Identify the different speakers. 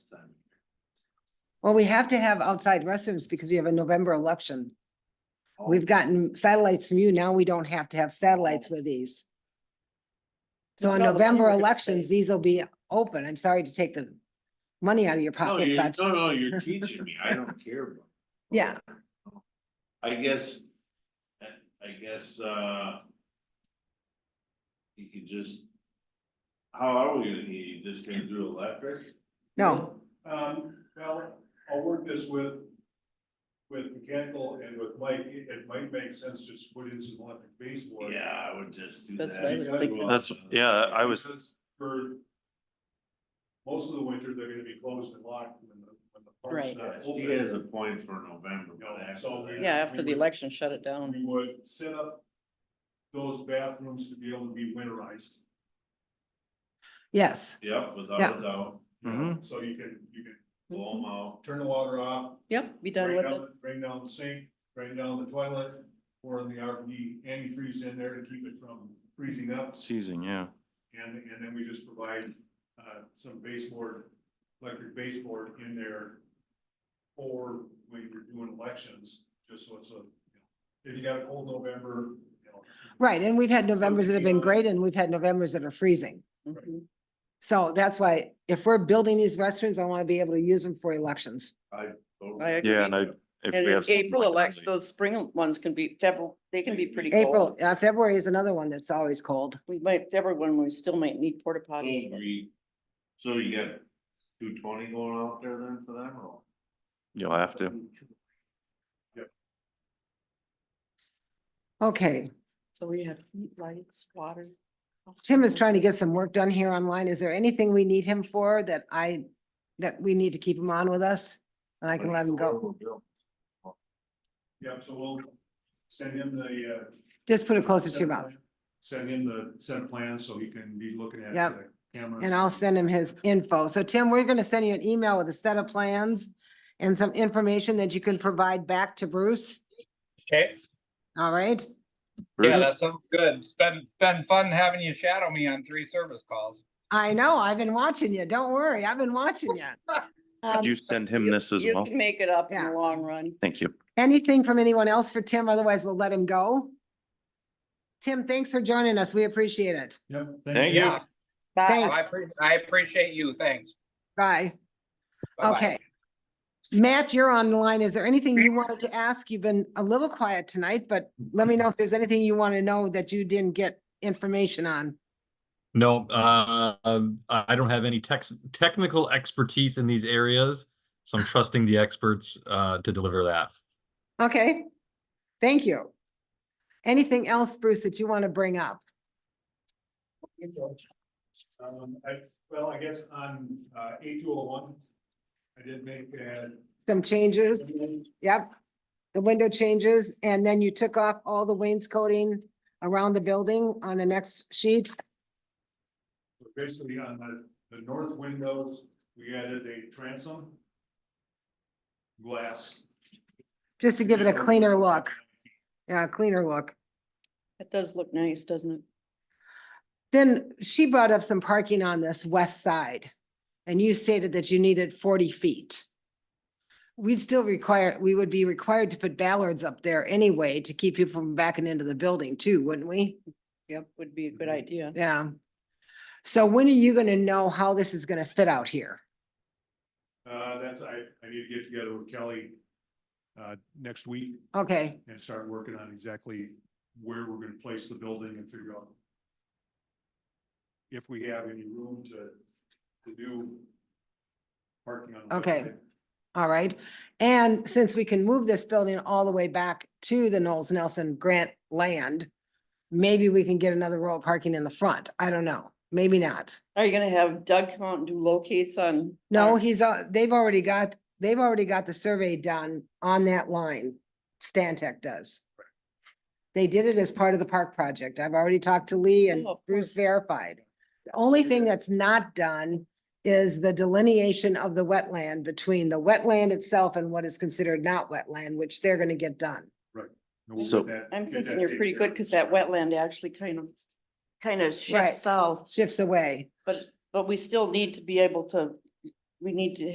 Speaker 1: Well, we have to have outside restrooms because we have a November election.
Speaker 2: Oh.
Speaker 1: We've gotten satellites from you. Now we don't have to have satellites with these. So on
Speaker 3: No, the money
Speaker 1: November
Speaker 3: we're gonna
Speaker 1: elections,
Speaker 3: save.
Speaker 1: these will be open. I'm sorry to take the money out of your
Speaker 2: No,
Speaker 1: pocket,
Speaker 2: you're,
Speaker 1: but
Speaker 2: no, no, you're teaching me, I don't care. about-
Speaker 1: yeah,
Speaker 2: I guess, I guess, uh. You could just. How are we gonna, you just gonna do electric?
Speaker 1: no,
Speaker 4: Um, well, I'll work this with, with mechanical and with Mike, it, it might make sense just to put in some electric baseboard.
Speaker 2: Yeah, I would just do that.
Speaker 3: That's what I was thinking.
Speaker 5: That's, yeah, I was,
Speaker 4: Because For most of the winter, they're gonna be closed and locked when the, when the
Speaker 3: Right.
Speaker 4: park's not
Speaker 2: He has a
Speaker 4: open.
Speaker 2: point for November,
Speaker 4: You know,
Speaker 2: but after
Speaker 4: so
Speaker 2: that-
Speaker 4: we-
Speaker 3: Yeah, after the
Speaker 4: would-
Speaker 3: election, shut it
Speaker 4: We
Speaker 3: down.
Speaker 4: would set up those bathrooms to be able to be winterized.
Speaker 1: yes.
Speaker 2: Yep, without
Speaker 1: Yeah.
Speaker 2: a doubt,
Speaker 4: you know,
Speaker 5: Mhm.
Speaker 4: So you can, you can
Speaker 3: Mm-hmm.
Speaker 2: blow 'em out.
Speaker 4: turn the water off,
Speaker 3: Yep, be done
Speaker 4: Bring
Speaker 3: with
Speaker 4: down,
Speaker 3: it.
Speaker 4: the- bring down the sink, bring down the toilet, pour in the RV antifreeze in there to keep it from freezing up.
Speaker 5: seizing, yeah.
Speaker 4: And, and then we just provide, uh, some baseboard, electric baseboard in there for when you're doing elections, just so it's a, you know, if you got a cold November, you know.
Speaker 1: Right. And we've had Novembers that have been
Speaker 4: beyond-
Speaker 1: great and we've had Novembers that are freezing.
Speaker 3: Mhm.
Speaker 1: So that's why if we're building these restrooms, I want to be able to use them for elections.
Speaker 2: Totally.
Speaker 3: I agree.
Speaker 5: Yeah, and I, if
Speaker 3: And
Speaker 5: we have.
Speaker 3: if
Speaker 5: something
Speaker 3: April
Speaker 5: like that,
Speaker 3: elects,
Speaker 5: like-
Speaker 3: those spring ones can be February, they can be pretty
Speaker 1: April,
Speaker 3: cold.
Speaker 1: uh, February is another one that's always cold.
Speaker 3: We might, February one, we still might need porta
Speaker 2: So
Speaker 3: potties. but-
Speaker 2: we- So you got two twenty going out there then for them or?
Speaker 5: You'll have to.
Speaker 1: Okay.
Speaker 3: So we have heat, lights, water.
Speaker 1: Tim is trying to get some work done here online. Is there anything we need him for that I, that we need to keep him on with us? And I can let him go.
Speaker 4: Yep, so we'll send him the, uh,
Speaker 1: Just put it closer to your
Speaker 4: set
Speaker 1: mouth.
Speaker 4: plan- Send him the set plan so he can be looking at
Speaker 1: Yep.
Speaker 4: the cameras.
Speaker 1: And I'll send him his info. So Tim, we're gonna send you an email with a set of plans and some information that you can provide back to Bruce.
Speaker 6: Okay,
Speaker 1: All right?
Speaker 6: yeah,
Speaker 5: Bruce,
Speaker 6: that sounds good. It's been, been fun having you shadow me on three service calls.
Speaker 1: I know, I've been watching you. Don't worry, I've been watching you. Um,
Speaker 5: could you send him this as
Speaker 3: You
Speaker 5: well?
Speaker 3: can make it up in
Speaker 1: Yeah.
Speaker 3: the long run.
Speaker 5: Thank you.
Speaker 1: Anything from anyone else for Tim? Otherwise, we'll let him go. Tim, thanks for joining us. We appreciate it.
Speaker 4: Yep.
Speaker 5: Thank you.
Speaker 6: Yeah,
Speaker 3: Bye.
Speaker 1: Thanks.
Speaker 6: I, appre- I appreciate you. Thanks.
Speaker 1: Bye.
Speaker 6: Bye-bye.
Speaker 1: Okay. Matt, you're on the line. Is there anything you wanted to ask? You've been a little quiet tonight, but let me know if there's anything you want to know that you didn't get information on.
Speaker 7: No, uh, um, I don't have any tex- technical expertise in these areas, so I'm trusting the experts uh, to deliver that.
Speaker 1: Okay, thank you. Anything else, Bruce, that you want to bring up?
Speaker 4: Um, I, well, I guess on, uh, eight two oh one, I did make, uh,
Speaker 1: Some changes? Yep. The window changes, and then you took off all the wainscoting around the building on the next sheet.
Speaker 4: basically on the, the north windows, we added a transom. Glass.
Speaker 1: Just to give it a cleaner look, yeah, a cleaner look.
Speaker 3: It does look nice, doesn't it?
Speaker 1: Then she brought up some parking on this west side, and you stated that you needed forty feet. We'd still require, we would be required to put ballards up there anyway to keep people from backing into the building too, wouldn't we?
Speaker 3: Yep, would be a good idea.
Speaker 1: Yeah. So when are you gonna know how this is gonna fit out here?
Speaker 4: Uh, that's, I, I need to get together with Kelly, uh, next week
Speaker 1: Okay,
Speaker 4: and start working on exactly where we're gonna place the building and figure out if we have any room to, to do parking on. the west
Speaker 1: Okay.
Speaker 4: side.
Speaker 1: all right. And since we can move this building all the way back to the Knowles Nelson Grant land, maybe we can get another row of parking in the front. I don't know. Maybe not.
Speaker 3: Are you gonna have Doug come out and do locates on?
Speaker 1: No,
Speaker 3: on-
Speaker 1: he's, al- they've already got, they've already got the survey done on that line. Stantec does. They did it as part of the park project. I've already talked to Lee and
Speaker 3: Oh, of
Speaker 1: Bruce
Speaker 3: course.
Speaker 1: verified. The only thing that's not done is the delineation of the wetland between the wetland itself and what is considered not wetland, which they're gonna get done.
Speaker 4: And we'll
Speaker 5: So-
Speaker 4: get that-
Speaker 3: I'm
Speaker 4: get
Speaker 3: thinking
Speaker 4: that
Speaker 3: you're pretty
Speaker 4: taken care
Speaker 3: good,
Speaker 4: of.
Speaker 3: cause that wetland actually kind of, kind of
Speaker 1: Right.
Speaker 3: shifts south,
Speaker 1: Shifts away.
Speaker 3: but, but we still need to be able to, we need to